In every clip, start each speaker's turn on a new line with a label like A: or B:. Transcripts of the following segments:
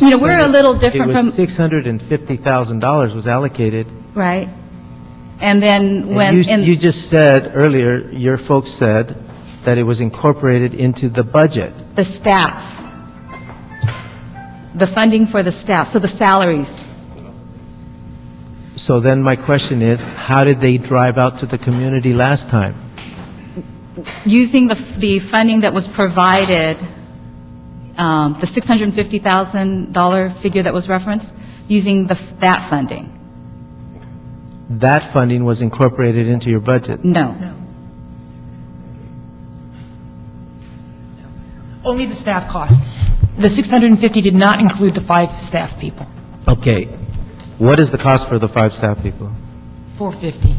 A: You know, we're a little
B: It
A: different
B: was
A: from,
B: $650,000 was allocated.
A: right? And then when,
B: And you-
A: and-
B: you just said earlier, your folks said that it was incorporated into the budget.
A: The staff. The funding for the staff, so the salaries.
B: So then my question is, how did they drive out to the community last time?
A: Using the, the funding that was provided, um, the $650,000 figure that was referenced, using the, that funding.
B: That funding was incorporated into your budget.
A: No.
C: Only the staff cost. The 650 did not include the five staff people,
B: Okay. What is the cost for the five staff people?
C: 450,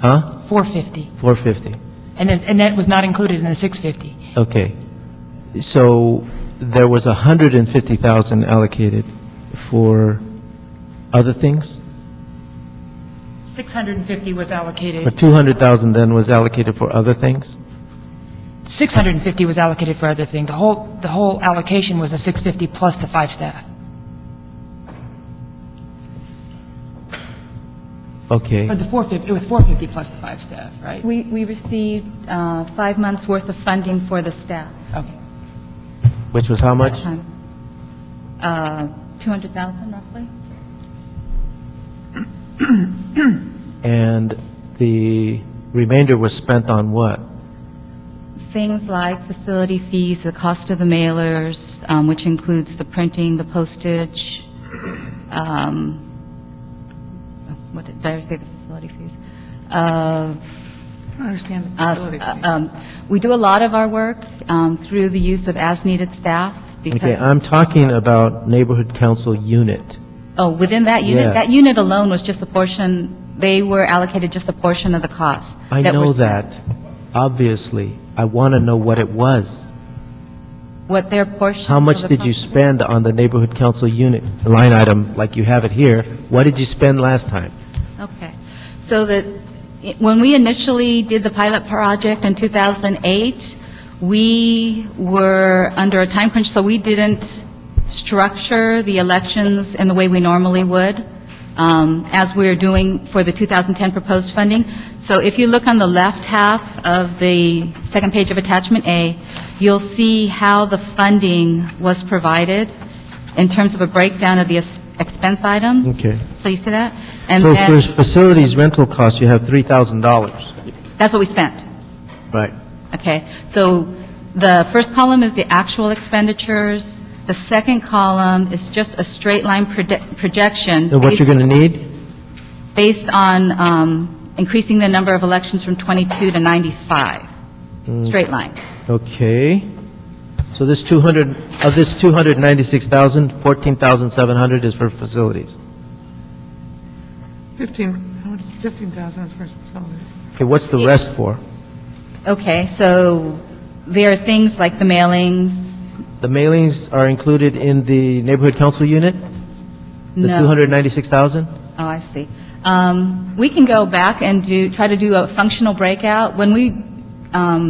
B: Huh?
C: 450.
B: 450.
C: And this- and that was not included in the 650.
B: Okay. So there was 150,000 allocated for other things?
C: 650 was
B: But
C: allocated,
B: 200,000 then was allocated for other things?
C: 650 was allocated for other things. The whole, the whole allocation was the 650 plus the five staff.
B: Okay.
C: Or the 450, it was 450 plus the five staff, right?
A: We, we received uh, five months' worth of funding for the staff.
C: Okay.
B: Which was how much?
A: Um, uh, 200,000 roughly?
B: And the remainder was spent on what?
A: Things like facility fees, the cost of the mailers, um, which includes the printing, the postage, um, what did did I say, the facility fees? Uh, us- uh, um, We do a lot of our work um, through the use of as-needed staff
B: Okay, uh,
A: because,
B: I'm talking about neighborhood council unit.
A: oh, within that
B: Yeah.
A: unit, that unit alone was just a portion, they were allocated just a portion of the cost.
B: I
A: were
B: know
A: spent.
B: that, obviously. I want to know what it was.
A: What their portion.
B: How
A: of
B: much
A: the
B: did you
A: cost-
B: spend on the neighborhood council unit line item, like you have it here? What did you spend last time?
A: Okay. So that, when we initially did the pilot project in 2008, we were under a time crunch, so we didn't structure the elections in the way we normally would, um, as we're doing for the 2010 proposed funding. So if you look on the left half of the second page of attachment A, you'll see how the funding was provided in terms of a breakdown of the es- expense items.
B: Okay.
A: So you see that? And
B: So for
A: then,
B: facilities rental costs, you have $3,000.
A: that's what we spent,
B: Right.
A: okay? So the first column is the actual expenditures. The second column is just a straight line prode- projection.
B: And what you're going to need?
A: based- Based on um, increasing the number of elections from 22 to 95,
B: Mm.
A: straight line.
B: Okay. So this 200, of this 296,000, 14,700 is for facilities.
D: 15, how much, 15,000 is for facilities.
B: Okay, what's the rest for?
A: Okay, so there are things like the mailings,
B: The mailings are included in the neighborhood council unit? The
A: No.
B: 296,000?
A: Oh, I see. Um, We can go back and do, try to do a functional breakout. When we um,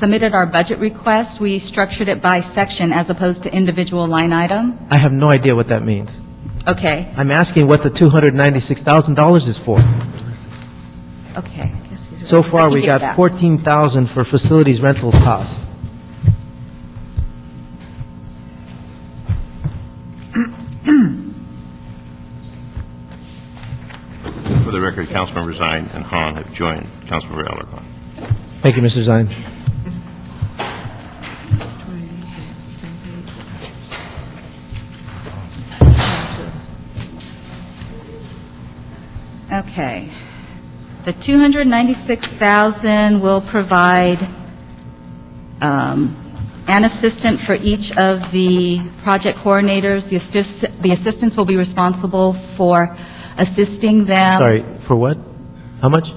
A: submitted our budget request, we structured it by section as opposed to individual line item.
B: I have no idea what that means.
A: Okay,
B: I'm asking what the $296,000 is for.
A: okay.
B: So far,
A: can
B: we
A: get
B: got
A: that.
B: 14,000 for facilities rental costs.
E: For the record, Councilmembers Zine and Han have joined Councilmember Alarcon.
B: Thank you, Mr. Zine.
A: Okay. The 296,000 will provide um, an assistant for each of the project coordinators. The assist- the assistants will be responsible for assisting them.
B: Sorry, for what? How much?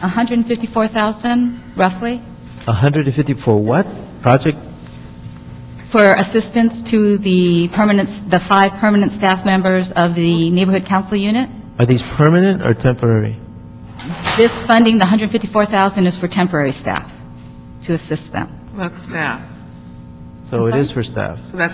A: 154,000 roughly
B: 150 for what? Project?
A: for assistance to the permanent, the five permanent staff members of the neighborhood council unit.
B: Are these permanent or temporary?
A: This funding, the 154,000, is for temporary staff to assist them.
D: That's staff.
B: So
F: So it is for staff.
B: So that's